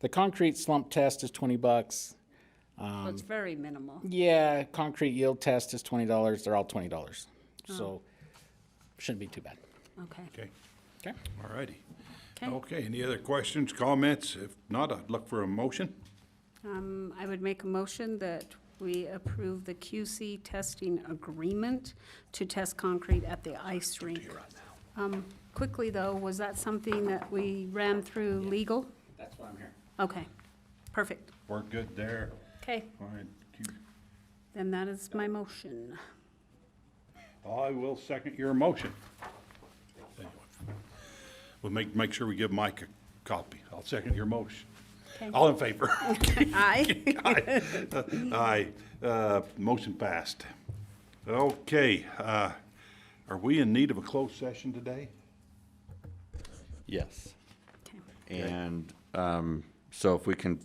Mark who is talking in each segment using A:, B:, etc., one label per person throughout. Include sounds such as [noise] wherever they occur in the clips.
A: The concrete slump test is twenty bucks.
B: Well, it's very minimal.
A: Yeah, concrete yield test is twenty dollars. They're all twenty dollars, so shouldn't be too bad.
B: Okay.
C: Okay,
A: Okay.
C: all righty.
B: Okay.
C: Okay, any other questions, comments? If not, I'd look for a motion.
B: Um, I would make a motion that we approve the QC testing agreement to test concrete at the ice rink. Um, quickly though, was that something that we ran through legal?
A: That's why I'm here.
B: Okay, perfect.
C: We're good there.
B: Okay,
C: All right, keep-
B: then that is my motion.
C: I will second your motion. Anyway, We'll make, make sure we give Mike a copy. I'll second your motion.
B: Okay.
C: All in favor?
B: [laughs] Aye.
C: [laughs] Aye. Aye. Uh, Motion passed. Okay, uh, are we in need of a closed session today?
D: Yes.
B: Okay.
D: And um, so if we can,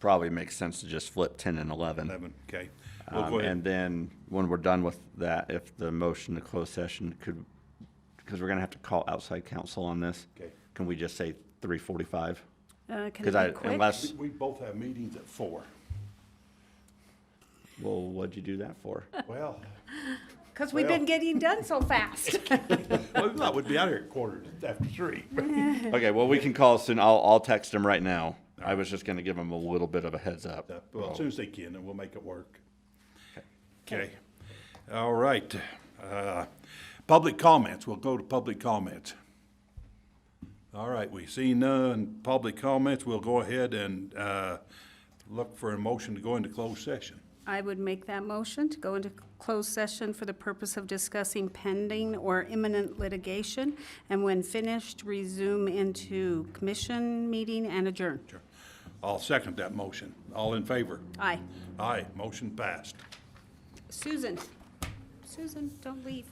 D: probably makes sense to just flip 10 and 11.
C: Eleven, okay. We'll
D: Um,
C: go
D: And
C: ahead.
D: then when we're done with that, if the motion to close session could, because we're going to have to call outside counsel on this.
C: Okay.
D: Can we just say 3:45?
B: Uh, can
D: Because I,
B: it be quick?
D: unless,
C: We- We both have meetings at four.
D: well, what'd you do that
C: [laughs]
D: for?
C: Well,
B: Because we've been
C: well.
B: getting done so fast.
C: well, we thought we'd be out here at quarter to- after three.
D: Okay, well, we can call soon. I'll, I'll text him right now. I was just going to give him a little bit of a heads up.
C: Uh, Well, as soon as they can, and we'll make it work. Okay. All right. Uh, Public comments, we'll go to public comments. All right, we see none public comments, we'll go ahead and uh, look for a motion to go into closed session.
B: I would make that motion to go into closed session for the purpose of discussing pending or imminent litigation, and when finished, resume into commission meeting and adjourn.
C: Sure. I'll second that motion. All in favor?
B: Aye.
C: Aye, motion passed.
B: Susan, Susan, don't leave.